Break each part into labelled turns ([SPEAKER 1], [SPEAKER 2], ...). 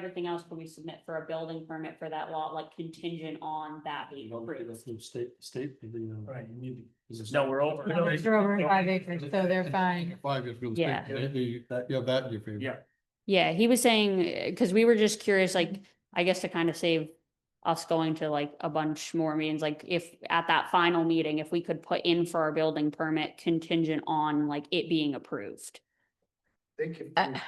[SPEAKER 1] everything else, can we submit for a building permit for that lot, like contingent on that being approved?
[SPEAKER 2] State, state, you know.
[SPEAKER 3] Right.
[SPEAKER 2] you need to-
[SPEAKER 3] No, we're over.
[SPEAKER 2] No, it's-
[SPEAKER 4] They're over five acres, so they're fine.
[SPEAKER 5] Five years real
[SPEAKER 1] Yeah.
[SPEAKER 5] estate, maybe, yeah, that in your favor.
[SPEAKER 2] Yeah.
[SPEAKER 1] Yeah, he was saying, because we were just curious, like, I guess to kind of save us going to like a bunch more meetings, like if at that final meeting, if we could put in for our building permit contingent on like it being approved.
[SPEAKER 3] They can.
[SPEAKER 4] I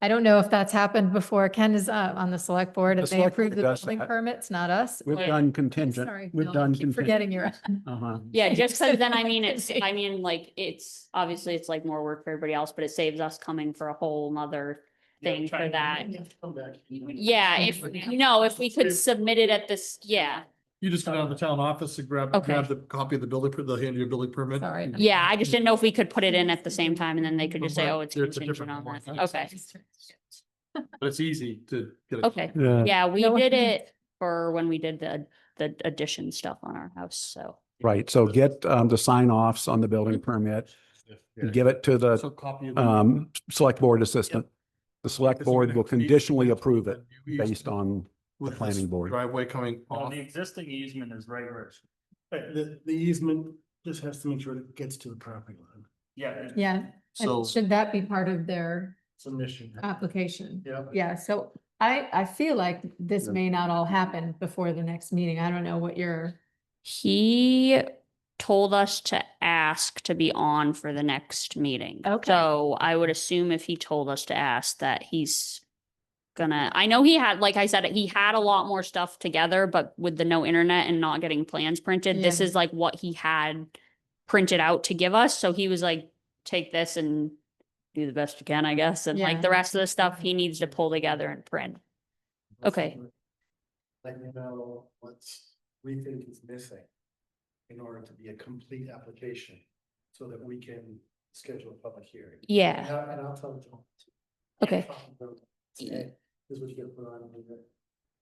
[SPEAKER 4] I don't know if that's happened before. Ken is uh, on the select board
[SPEAKER 6] The
[SPEAKER 4] and they
[SPEAKER 6] select
[SPEAKER 4] approve the
[SPEAKER 6] board does
[SPEAKER 4] building
[SPEAKER 6] that.
[SPEAKER 4] permits, not us.
[SPEAKER 6] We've
[SPEAKER 1] Wait.
[SPEAKER 6] done
[SPEAKER 4] Sorry,
[SPEAKER 6] contingent, we've
[SPEAKER 4] Bill,
[SPEAKER 6] done.
[SPEAKER 4] keep Forgetting your,
[SPEAKER 6] Uh-huh.
[SPEAKER 1] Yeah, just because then I mean, it's,
[SPEAKER 4] Continue.
[SPEAKER 1] I mean, like, it's, obviously it's like more work for everybody else, but it saves us coming for a whole nother thing for that.
[SPEAKER 3] Come back.
[SPEAKER 1] Yeah, if, no, if we could submit it at this, yeah,
[SPEAKER 5] You just go down to the town office and grab, grab
[SPEAKER 1] Okay.
[SPEAKER 5] the copy of the building, per- they'll hand you a building permit.
[SPEAKER 4] Sorry.
[SPEAKER 1] yeah, I just didn't know if we could put it in at the same time and then they could just say,
[SPEAKER 5] But
[SPEAKER 1] oh, it's
[SPEAKER 5] there's a
[SPEAKER 1] contingent
[SPEAKER 5] different
[SPEAKER 1] on
[SPEAKER 5] one.
[SPEAKER 1] that. Okay,
[SPEAKER 5] But it's easy to get. a-
[SPEAKER 1] okay.
[SPEAKER 2] Yeah,
[SPEAKER 1] Yeah, we
[SPEAKER 4] No
[SPEAKER 1] did
[SPEAKER 4] offense.
[SPEAKER 1] it for when we did the, the addition stuff on our house, so.
[SPEAKER 6] Right, so get um the sign offs on the building permit, give it to the
[SPEAKER 5] So copy. of the-
[SPEAKER 6] um select board assistant. The select
[SPEAKER 5] It's gonna
[SPEAKER 6] board will
[SPEAKER 5] be-
[SPEAKER 6] conditionally approve it
[SPEAKER 5] You used
[SPEAKER 6] based
[SPEAKER 5] to-
[SPEAKER 6] on,
[SPEAKER 5] with this
[SPEAKER 6] planning board.
[SPEAKER 5] Driveway coming
[SPEAKER 3] Well,
[SPEAKER 5] off.
[SPEAKER 3] the existing easement is right where, it's-
[SPEAKER 2] But the, the easement just has to make sure it gets to the property line.
[SPEAKER 3] yeah.
[SPEAKER 4] Yeah,
[SPEAKER 5] So
[SPEAKER 4] and should that be part of their
[SPEAKER 2] Submission.
[SPEAKER 4] application?
[SPEAKER 2] Yeah.
[SPEAKER 4] Uh, Yeah, so I, I feel like this
[SPEAKER 6] Yeah.
[SPEAKER 4] may not all happen before the next meeting. I don't know what your,
[SPEAKER 1] He told us to ask to be on for the next meeting.
[SPEAKER 4] Okay.
[SPEAKER 1] So I would assume if he told us to ask that he's gonna, I know he had, like I said, he had a lot more stuff together, but with the no internet and not getting plans printed, this
[SPEAKER 4] Yeah.
[SPEAKER 1] is like what he had printed out to give us. So he was like, take this and do the best you can, I guess. And like the
[SPEAKER 4] Yeah.
[SPEAKER 1] rest of the stuff he needs to pull together and print. Okay.
[SPEAKER 2] Let me know what's, we think is missing in order to be a complete application so that we can schedule a public hearing. And
[SPEAKER 1] Yeah,
[SPEAKER 2] I'll, and I'll tell John.
[SPEAKER 1] okay.
[SPEAKER 2] This is what you get put on.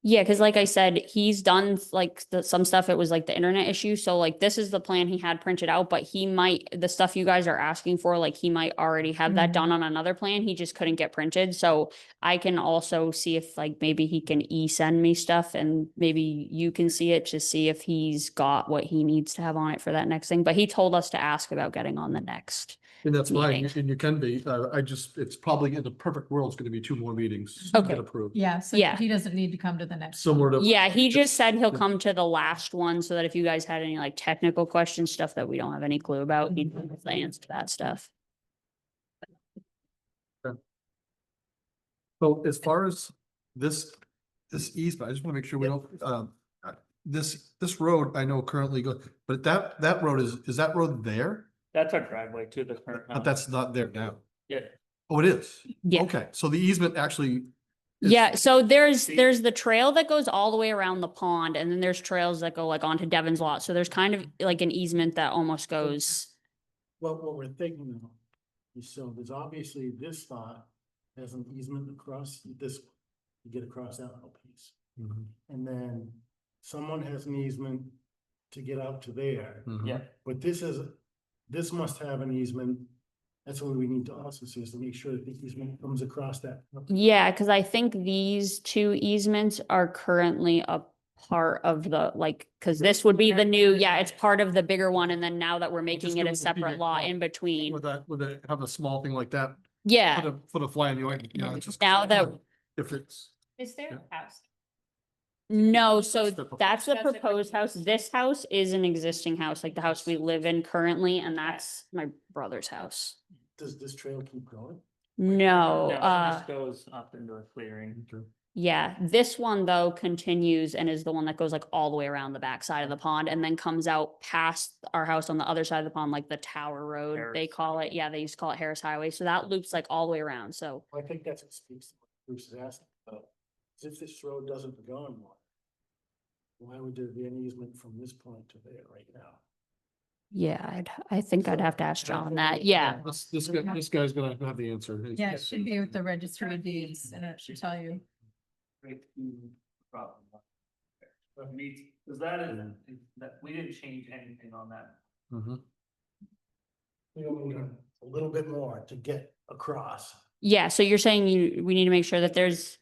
[SPEAKER 1] Yeah, cause like I said, he's done like the, some stuff, it was like the internet issue, so like this is the plan he had printed out, but he might, the stuff you guys are asking for, like he might already have that
[SPEAKER 4] Mhm.
[SPEAKER 1] done on another plan, he just couldn't get printed, so I can also see if like maybe he can e-send me stuff and maybe you can see it to see if he's got what he needs to have on it for that next thing, but he told us to ask about getting on the next.
[SPEAKER 5] And that's fine,
[SPEAKER 1] meeting.
[SPEAKER 5] and you can be, uh, I just, it's probably in the perfect world, it's gonna be two more meetings. to get
[SPEAKER 1] Okay.
[SPEAKER 5] Approved,
[SPEAKER 4] yeah, so
[SPEAKER 1] Yeah.
[SPEAKER 4] he doesn't need to come to the next. one.
[SPEAKER 5] similar to.
[SPEAKER 1] Yeah, he
[SPEAKER 5] Yeah.
[SPEAKER 1] just said he'll
[SPEAKER 5] Yeah.
[SPEAKER 1] come to the last one so that if you guys had any like technical questions, stuff that we don't have any clue about, he'd know the answer to that stuff.
[SPEAKER 5] So as far as this, this easement, I just want to make sure we don't, um, uh, this, this road, I know currently go, but that, that road is, is that road there?
[SPEAKER 3] That's our driveway to the current.
[SPEAKER 5] But
[SPEAKER 3] house.
[SPEAKER 5] that's not there now.
[SPEAKER 3] Yeah.
[SPEAKER 5] Oh, it is?
[SPEAKER 1] Yeah.
[SPEAKER 5] Okay, so the easement actually. is-
[SPEAKER 1] Yeah, so there's,
[SPEAKER 3] See-
[SPEAKER 1] there's the trail that goes all the way around the pond and then there's trails that go like onto Devon's lot. So there's kind of like an easement that almost goes.
[SPEAKER 2] What, what we're thinking of is so there's obviously this lot has an easement across this, one. you get across that little piece.
[SPEAKER 5] Mhm,
[SPEAKER 2] And then someone has an easement to get out to there.
[SPEAKER 1] Mm-hmm.
[SPEAKER 5] mhm.
[SPEAKER 3] Yeah,
[SPEAKER 2] But this is, this must have an easement. That's what we need to also see is to make sure that the easement comes across that.
[SPEAKER 1] Yeah, cause I think these two easements are currently a part of the, like, cause this would be the new, yeah, it's part of the bigger one. And then now that we're making
[SPEAKER 5] just
[SPEAKER 1] it
[SPEAKER 5] do
[SPEAKER 1] a
[SPEAKER 5] a
[SPEAKER 1] separate
[SPEAKER 5] bigger
[SPEAKER 1] lot
[SPEAKER 5] lot.
[SPEAKER 1] in between.
[SPEAKER 5] Would that, would that have a small thing like that?
[SPEAKER 1] Yeah.
[SPEAKER 5] Put a, put a fly in the ointment, you know, it's just.
[SPEAKER 1] Now that-
[SPEAKER 5] If it's,
[SPEAKER 7] Is there a house?
[SPEAKER 1] No, so
[SPEAKER 5] the proposed-
[SPEAKER 1] Oh, that's the
[SPEAKER 7] That's the
[SPEAKER 1] proposed house.
[SPEAKER 7] proposed.
[SPEAKER 1] This house is an existing house, like the house we live in currently, and that's my brother's house.
[SPEAKER 2] Does this trail keep going?
[SPEAKER 1] No,
[SPEAKER 4] Oh,
[SPEAKER 3] no, it
[SPEAKER 1] uh,
[SPEAKER 3] just goes up into a clearing.
[SPEAKER 1] yeah, this one though continues and is the one that goes like all the way around the back side of the pond and then comes out past our house on the other side of the pond, like the Tower Road, they
[SPEAKER 3] Harris.
[SPEAKER 1] call it. Yeah, they used to call it Harris Highway. So that loops like all the way around. So
[SPEAKER 2] I think that's what speaks to what Bruce is asking about. is If this road doesn't go anymore, why would there be an easement from this point to there right now?
[SPEAKER 1] yeah, I'd, I think I'd have to ask
[SPEAKER 2] I don't
[SPEAKER 1] John
[SPEAKER 2] think
[SPEAKER 1] that.
[SPEAKER 2] we-
[SPEAKER 1] Yeah.
[SPEAKER 5] this, this guy, this guy's gonna have the answer. It's-
[SPEAKER 4] Yeah, it should be with the registry of deeds and it should tell you.
[SPEAKER 3] Right to the problem. But meets, because that is, that, we didn't change anything on that.
[SPEAKER 5] Mhm.
[SPEAKER 2] We don't need a little bit more to get across.
[SPEAKER 1] Yeah, so you're saying you, we need to make sure that there's